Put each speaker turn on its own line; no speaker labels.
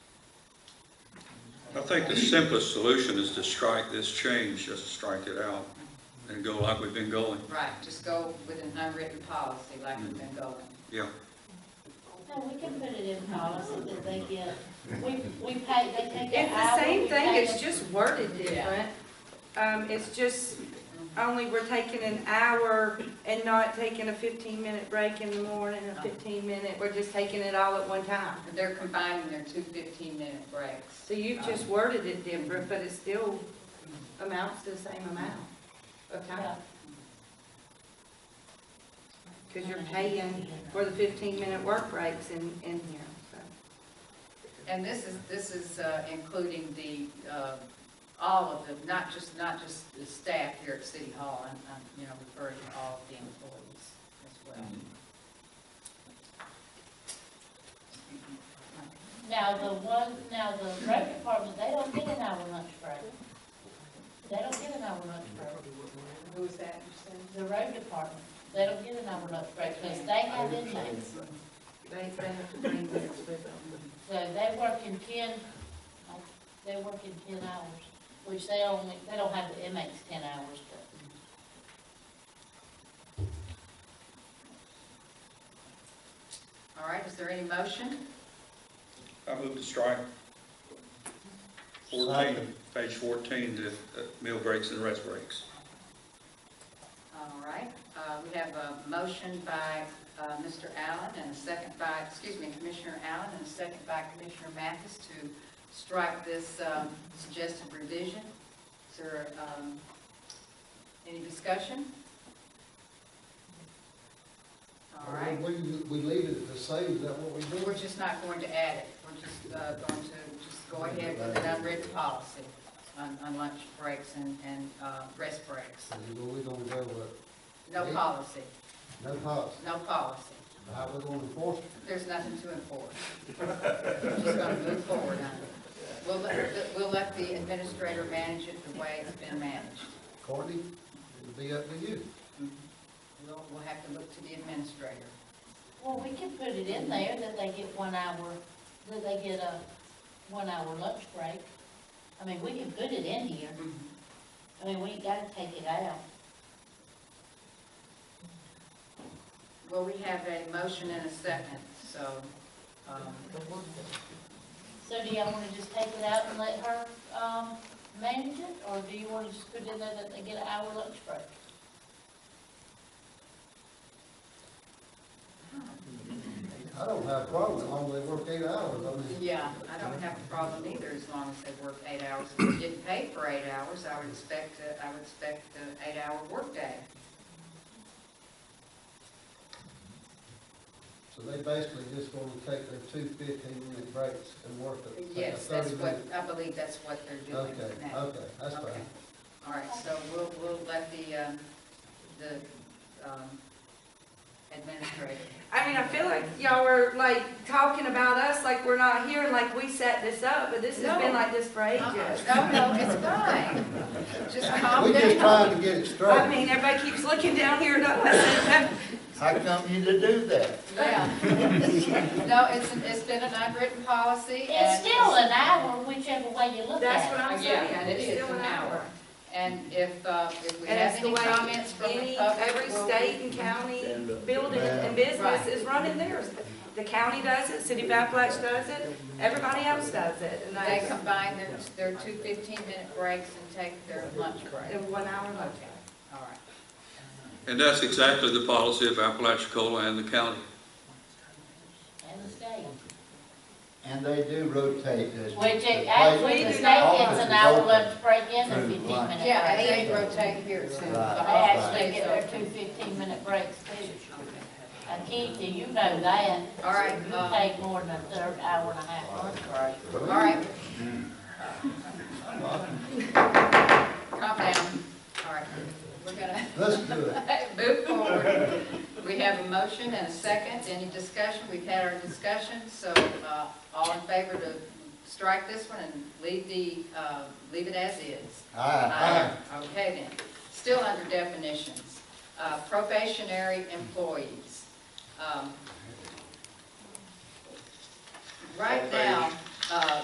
think the simplest solution is to strike this change, just strike it out and go like we've been going.
Right, just go with an unwritten policy like we've been going.
Yeah,
No, we can put it in policy that they get, we, we pay, they take an
It's
hour.
the same
we
thing,
pay
it's
them-
just worded
Yeah.
different. Um, it's just, only we're taking an hour and not taking a fifteen-minute break in the morning, a fifteen-minute, we're just taking it all at one time.
They're combining their two 15-minute breaks.
So you've just worded it different, but it still amounts to the same amount of time,
Yeah.
because you're paying for the fifteen-minute work breaks in, in here, so.
And this is, this is uh, including the, uh, all of them, not just, not just the staff here at City Hall, I'm, I'm, you know, referring to all of the employees as well.
Now, the one, now, the road department, they don't get an hour lunch break. They don't get an hour lunch break.
Who is that you said?
The road department, they don't get an hour lunch break because they have inmates.
They, they have to bring this with them.
So they work in ten, uh, they work in ten hours, which they only, they don't have the inmates ten hours, but.
All right, is there any motion?
I move to strike fourteen, page fourteen, the uh, meal breaks and rest breaks.
All right, uh, we have a motion by uh, Mr. Allen and a second by, excuse me, Commissioner Allen and a second by Commissioner Mathis to strike this um, suggested revision. Is there um, any discussion? All right,
We, we leave it the same, is that what we do?
we're just not going to add it. We're just uh, going to just go ahead with an unwritten policy on on lunch breaks and and uh, rest breaks.
We're gonna go with
No policy,
no policy,
no policy.
how we gonna enforce it?
There's nothing to enforce. We're just gonna move forward on it. We'll let, we'll let the administrator manage it the way it's been managed.
Courtney, it'll be up to you.
We'll, we'll have to look to the administrator.
Well, we can put it in there that they get one hour, that they get a one hour lunch break. I mean, we can put it in here, I mean, we ain't gotta take it out.
Well, we have a motion and a second, so, um,
So do y'all wanna just take it out and let her, um, manage it, or do you wanna just put in there that they get an hour lunch break?
I don't have a problem, as long as they work eight hours, I mean,
yeah, I don't have a problem either as long as they work eight hours. If they didn't pay for eight hours, I would expect, a- I would expect an eight-hour workday.
so they basically just gonna take their two fifteen-minute breaks and work it. take a
Yes, that's
30
what,
minute-
I believe that's what they're doing
Okay,
now.
okay, that's
Okay.
fine.
All right, so we'll, we'll let the, um, the um, administrator.
I mean, I feel like y'all were like talking about us, like we're not here, and like we set this up, but this has been
No.
like this for ages.
Uh-uh. No, no, it's fine. Just calm
We just
down.
trying to get it
I
straight.
mean, everybody keeps looking down here, not listening.
How come you to do that?
Yeah. No, it's, it's been an unwritten policy.
It's
and-
still an hour, whichever way you look
That's what
at it.
I'm
Yeah,
saying,
it is
it's still an hour.
And if, uh, if we
And
have
that's the
any
way
comments from the
any,
public.
every
we'll-
state and county building and business is running theirs. The county does it, City of Appalachia does it, everybody else does it, and
They
they,
combine their, their two 15-minute breaks and take their lunch break.
in one hour lunch.
All right.
And that's exactly the policy of Apalachicola and the county.
And the state.
And they do rotate this.
Which,
the
it- actually,
place-
the
the
state
office
gets
is
an hour
open.
lunch break and a
Through
fifteen
lunch.
minute
Yeah,
break.
they rotate here too.
Right,
The
They
right.
office
actually
days
get
are-
their two fifteen minute breaks too. Uh, Keith, do you know that?
All right,
You
um,
take more than a third hour and a half lunch break.
All right. Calm down. All right, we're gonna
Let's do it.
move forward. We have a motion and a second. Any discussion? We've had our discussion, so uh, all in favor to strike this one and leave the, uh, leave it as is.
Aye.
Okay then. Still under definitions. Uh, Probationary employees. Um, Right now, uh,